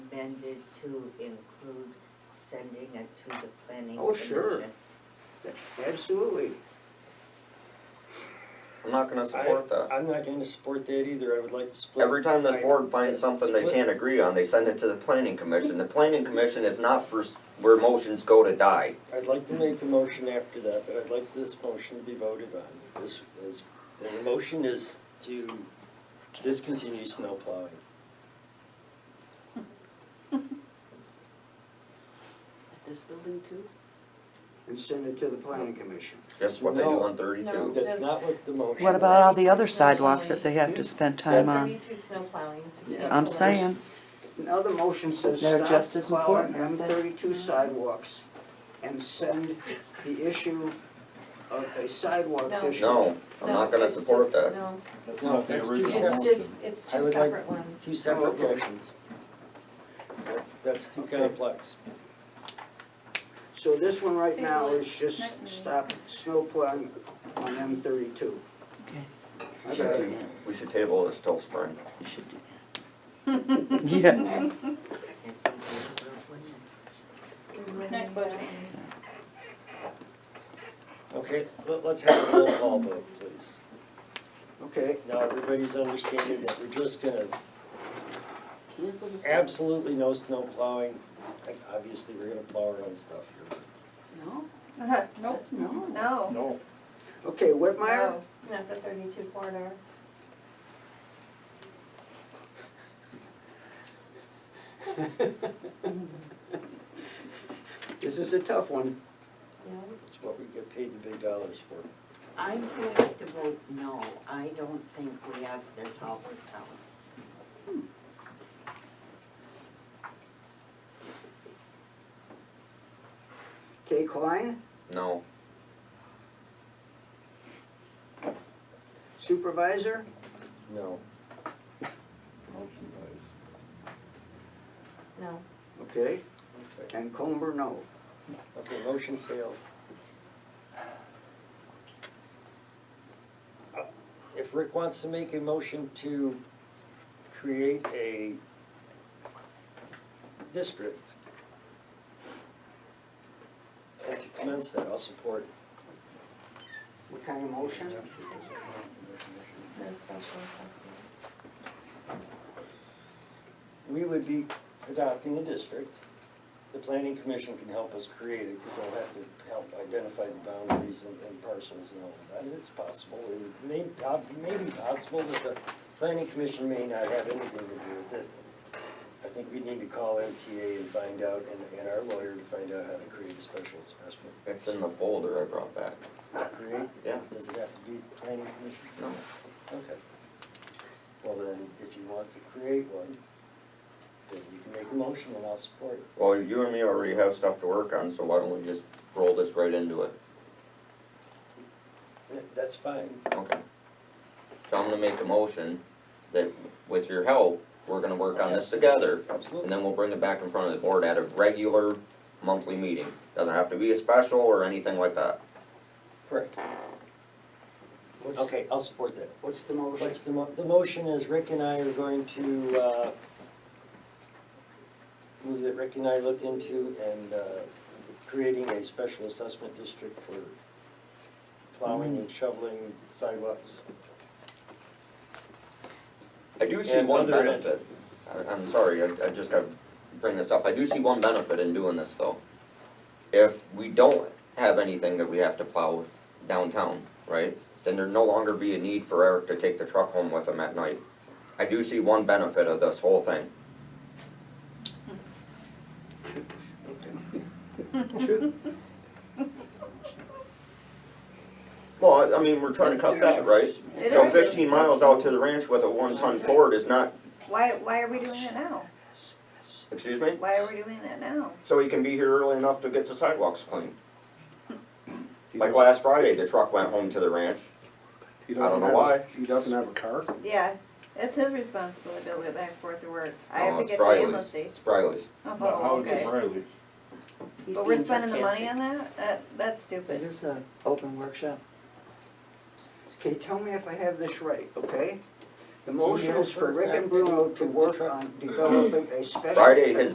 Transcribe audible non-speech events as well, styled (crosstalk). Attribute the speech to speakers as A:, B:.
A: amended to include sending it to the planning commission?
B: Oh, sure. Absolutely.
C: I'm not gonna support that.
D: I'm not gonna support that either, I would like to split.
C: Every time this board finds something they
D: Split.
C: can't agree on, they send it to the planning commission. The planning commission is not for, s- where motions go to die.
D: I'd like to make a motion after that, but I'd like this motion to be voted on. This is, and the motion is to discontinue snow plowing.
E: This building too?
B: And send it to the planning commission.
C: Just what they do
D: No.
C: on
F: No.
C: thirty-two.
D: That's not what the motion
G: What about all the
D: was.
G: other sidewalks that they have to spend time on?
F: Thirty-two snow plowing to
B: Yeah.
F: cancel
G: I'm
F: that.
G: saying, (laughs)
B: Now the motion says
G: They're just
B: stop
G: as
B: plowing M
G: important, aren't
B: thirty-two sidewalks and send the issue of a sidewalk
F: No.
B: issue.
C: No, I'm
F: No,
C: not gonna
F: it's
C: support
F: just-
C: that.
F: No,
D: No, that's two
F: it's
D: separate,
F: just, it's
D: I
F: two
D: would like
F: separate ones.
D: two separate
B: Okay.
D: motions. That's, that's too
B: Okay.
D: complex.
B: So this one right now
F: Table it.
B: is just
F: Next meeting.
B: stop snow plowing on M thirty-two.
G: Okay.
B: I got it.
C: We should table this till spring.
G: you should do that. Yeah,
F: Next budget.
H: (laughs)
D: Okay, let- let's have a roll call vote, please.
B: Okay,
D: Now, everybody's understanding that we're just gonna
E: Cancel the.
D: Absolutely no snow plowing. Like, Obviously, we're gonna plow our own stuff here.
E: No,
F: Nope,
E: no.
F: no.
D: No.
B: okay, Whitmire,
F: No, It's not the thirty-two corridor.
B: (laughs) this is a tough one.
F: No.
D: It's what we get paid the big dollars for.
A: I'm going to vote no, I don't think we have this all worked out.
B: Kay Klein,
C: No,
B: supervisor,
D: No.
F: No.
B: okay,
D: Okay.
B: and Comber, no.
D: Okay, motion failed. Uh, If Rick wants to make a motion to create a district and to commence that, I'll support it.
B: What kind of motion?
F: The special assessment.
D: we would be adopting a district. The planning commission can help us create it, because they'll have to help identify the boundaries and, and parcels and all of that, it's possible. It would may, uh, may be possible, but the planning commission may not have anything to do with it. I think we need to call MTA and find out, and, and our lawyer to find out how to create a special assessment.
C: it's in the folder I brought back.
D: To create,
C: Yeah.
D: does it have to be planning commission?
C: No.
D: Okay. Well then, if you want to create one, then you can make a motion and I'll support it.
C: Well, you and me already have stuff to work on, so why don't we just roll this right into it?
D: Yeah, That's fine.
C: Okay. So I'm gonna make a motion that with your help, we're gonna work on this together.
D: Absolutely.
C: And then we'll bring it back in front of the board at a regular monthly meeting. Doesn't have to be a special or anything like that.
D: Correct.
B: What's-
D: Okay, I'll support that.
B: What's the motion?
D: What's the mo, the motion is Rick and I are going to, uh, move that Rick and I look into and, uh, creating a special assessment district for
I: Mm.
D: plowing and shoveling sidewalks.
C: I do see
D: And
C: one
D: other-
C: benefit. I, I'm sorry, I, I just gotta bring this up. I do see one benefit in doing this though. If we don't have anything that we have to plow downtown, right, then there'd no longer be a need for Eric to take the truck home with him at night. I do see one benefit of this whole thing.
B: True.
C: Well, I, I mean, we're trying to cut that, right?
H: It
C: So
H: is.
C: fifteen miles out to the ranch with a one-ton Ford is not,
H: Why, why are we doing it now?
C: excuse me?
H: Why are we doing it now?
C: So he can be here early enough to get the sidewalks cleaned. Like last Friday, the truck went home to the ranch.
I: He
C: I don't
I: doesn't
C: know
I: have-
C: why.
I: He doesn't have a car?
H: Yeah, it's his responsibility to go back and forth to work. I
C: No,
F: Oh,
H: have to
C: it's
H: get to the
C: Briley's.
H: state.
C: It's Briley's.
H: Oh, okay.
E: He's
H: But we're
E: being
H: spending the money
E: sarcastic.
H: on that? That, that's
E: Is
H: stupid.
E: this a open workshop?
B: Okay, tell me if I have this right, okay? The
D: you
B: motion is for
D: answer
B: Rick and
D: that?
B: Bruno to work on developing a special.
C: Friday, his